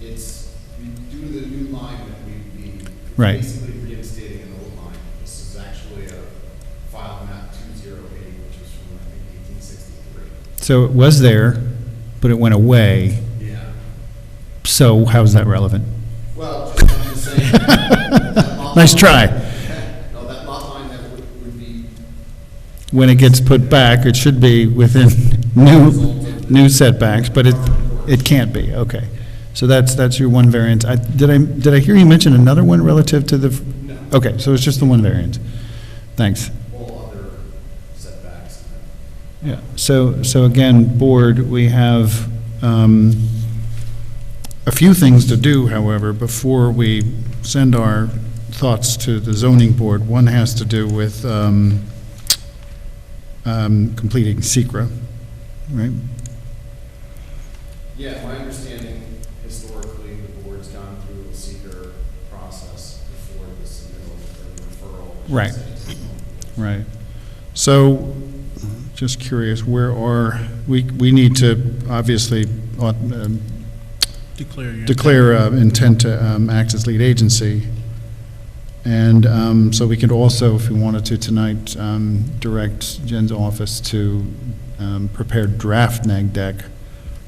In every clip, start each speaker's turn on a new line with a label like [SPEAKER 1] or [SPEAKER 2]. [SPEAKER 1] It's, due to the new line that we'd be
[SPEAKER 2] Right.
[SPEAKER 1] basically reinstating an old line. This is actually a file map two zero eight, which was from, I think, eighteen sixty-three.
[SPEAKER 2] So it was there, but it went away.
[SPEAKER 1] Yeah.
[SPEAKER 2] So how's that relevant?
[SPEAKER 1] Well, just I'm just saying. that lot
[SPEAKER 2] Nice
[SPEAKER 1] line-
[SPEAKER 2] try.
[SPEAKER 1] No, that lot line that would, would be,
[SPEAKER 2] When it gets put back, it should be within new, new setbacks, but it, it can't be, okay. So that's, that's your one variance. I, did I, did I hear you mention another one relative to the? f-
[SPEAKER 1] no,
[SPEAKER 2] Okay, so it's just the one variance. Thanks.
[SPEAKER 1] all other setbacks.
[SPEAKER 2] Yeah, so, so again, board, we have um, a few things to do, however, before we send our thoughts to the zoning board. One has to do with um, um, completing SECR, right?
[SPEAKER 1] Yeah, my understanding historically, the board's gone through a seeker process before the submittal or referral. I should
[SPEAKER 2] Right.
[SPEAKER 1] say.
[SPEAKER 2] Right. So, just curious, where are, we, we need to obviously uh, um,
[SPEAKER 3] Declare your.
[SPEAKER 2] declare uh, intent to um, act as lead agency. And um, so we could also, if we wanted to tonight, um, direct Jen's office to um, prepare draft neg deck.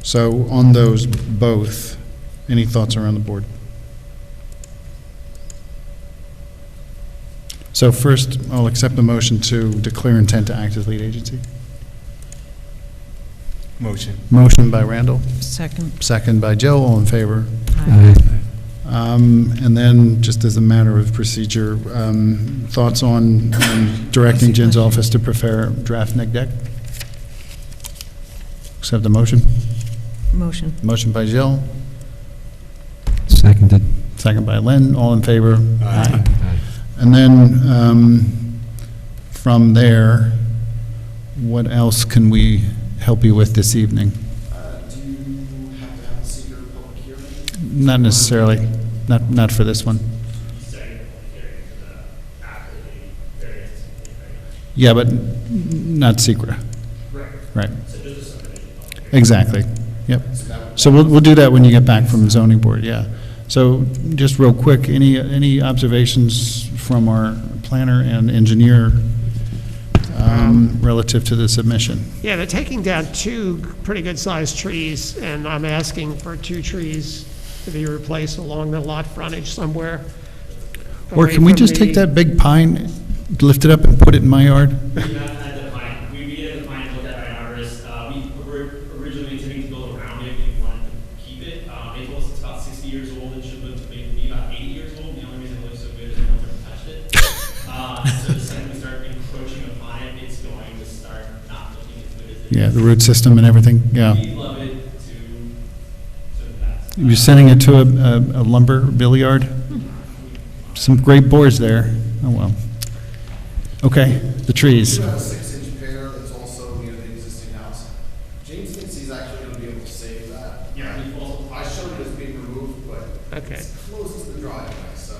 [SPEAKER 2] So on those both, any thoughts around the board? So first, I'll accept the motion to declare intent to act as lead agency.
[SPEAKER 3] Motion.
[SPEAKER 2] Motion by Randall,
[SPEAKER 4] Second.
[SPEAKER 2] second by Joe, all in favor?
[SPEAKER 4] Aye.
[SPEAKER 2] Um, And then, just as a matter of procedure, um, thoughts on um, directing Jen's office to prepare draft neg deck? Accept the motion.
[SPEAKER 4] Motion.
[SPEAKER 2] Motion by Jill,
[SPEAKER 5] Seconded.
[SPEAKER 2] second by Lynn, all in favor?
[SPEAKER 3] Aye.
[SPEAKER 2] And then, um, from there, what else can we help you with this evening?
[SPEAKER 1] Uh, do you have to have a seeker public hearing?
[SPEAKER 2] Not necessarily, not, not for this one.
[SPEAKER 6] setting up a hearing for the after the variance.
[SPEAKER 2] Yeah, but n- not secret.
[SPEAKER 6] Right.
[SPEAKER 2] right?
[SPEAKER 6] So just a subdivision public hearing.
[SPEAKER 2] Exactly, yep.
[SPEAKER 1] So that would.
[SPEAKER 2] So we'll, we'll do that when you get back from zoning board, yeah. So just real quick, any, any observations from our planner and engineer um, relative to the submission?
[SPEAKER 7] Yeah, they're taking down two pretty good-sized trees, and I'm asking for two trees to be replaced along the lot frontage somewhere.
[SPEAKER 2] Or
[SPEAKER 7] away
[SPEAKER 2] can we
[SPEAKER 7] from
[SPEAKER 2] just take
[SPEAKER 7] the-
[SPEAKER 2] that big pine, lift it up and put it in my yard?
[SPEAKER 6] We met at the pine, we meet at the pine, looked at an arborist, uh, we were originally intending to build around it, we wanted to keep it. Um, it was, it's about sixty years old, it should live to maybe be about eighty years old, the only reason it looks so good is no one's ever touched it. Uh, so the second we start encroaching upon it, it's going to start not looking as good as it is.
[SPEAKER 2] Yeah, the root system and everything, yeah.
[SPEAKER 6] We love it to, to that.
[SPEAKER 2] You're sending it to a a lumber billiard? Some great boards there, oh well. Okay, the trees.
[SPEAKER 1] Do you have a six-inch pear that's also near the existing house? James thinks he's actually gonna be able to save that.
[SPEAKER 6] Yeah, we also
[SPEAKER 1] I showed it as being removed, but
[SPEAKER 7] Okay,
[SPEAKER 1] it's close to the driveway, so.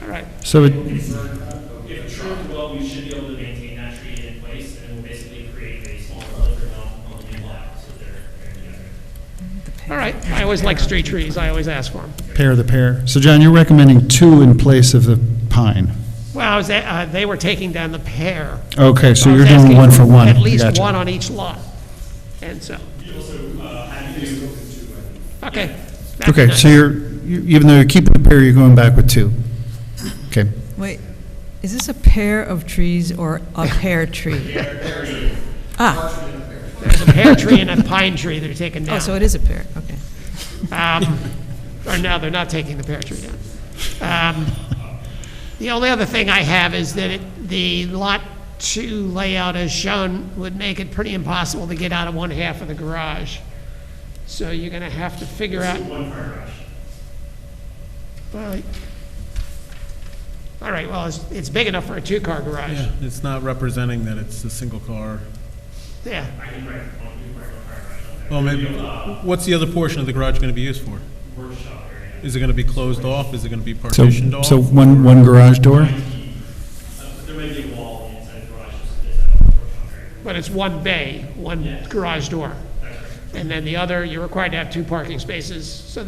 [SPEAKER 7] all right.
[SPEAKER 2] So it,
[SPEAKER 6] If trimmed well, we should be able to maintain that tree in place, and we'll basically create a small buffer zone on the new lot, so they're, they're together.
[SPEAKER 7] All right, I always like street trees, I always ask for them.
[SPEAKER 2] Pair the pair. So John, you're recommending two in place of the pine.
[SPEAKER 7] Well, I was, a- uh, they were taking down the pear.
[SPEAKER 2] Okay, so
[SPEAKER 7] I
[SPEAKER 2] you're
[SPEAKER 7] was
[SPEAKER 2] doing
[SPEAKER 7] asking
[SPEAKER 2] one for one.
[SPEAKER 7] At least
[SPEAKER 2] Gotcha.
[SPEAKER 7] one on each lot, and so,
[SPEAKER 6] We also, uh, had to do,
[SPEAKER 7] okay. that's
[SPEAKER 2] Okay,
[SPEAKER 7] nice.
[SPEAKER 2] so you're, you- even though you're keeping the pair, you're going back with two. Okay,
[SPEAKER 4] Wait, is this a pair of trees or a pear tree? Ah,
[SPEAKER 7] There's a pear tree and a pine tree that are taken down.
[SPEAKER 4] oh, so it is a pear, okay.
[SPEAKER 7] Um, Or no, they're not taking the pear tree down. Um, The only other thing I have is that it- the Lot 2 layout as shown would make it pretty impossible to get out of one half of the garage. So you're going to have to figure out,
[SPEAKER 6] one car crash.
[SPEAKER 7] well, all right, well, it's, it's big enough for a two-car garage.
[SPEAKER 3] Yeah, it's not representing that it's a single car.
[SPEAKER 7] Yeah,
[SPEAKER 6] I can write, one, we write one car crash on there.
[SPEAKER 3] Well, maybe, what's the other portion of the garage going to be used for?
[SPEAKER 6] Workshop area.
[SPEAKER 3] Is it going to be closed off? Is it going to be
[SPEAKER 2] so,
[SPEAKER 3] partitioned off?
[SPEAKER 2] so one, one garage door?
[SPEAKER 6] Uh, there may be a wall inside the garage, just this out of the workshop area.
[SPEAKER 7] but it's one bay, one garage door. And then the other, you're required to have two parking spaces, so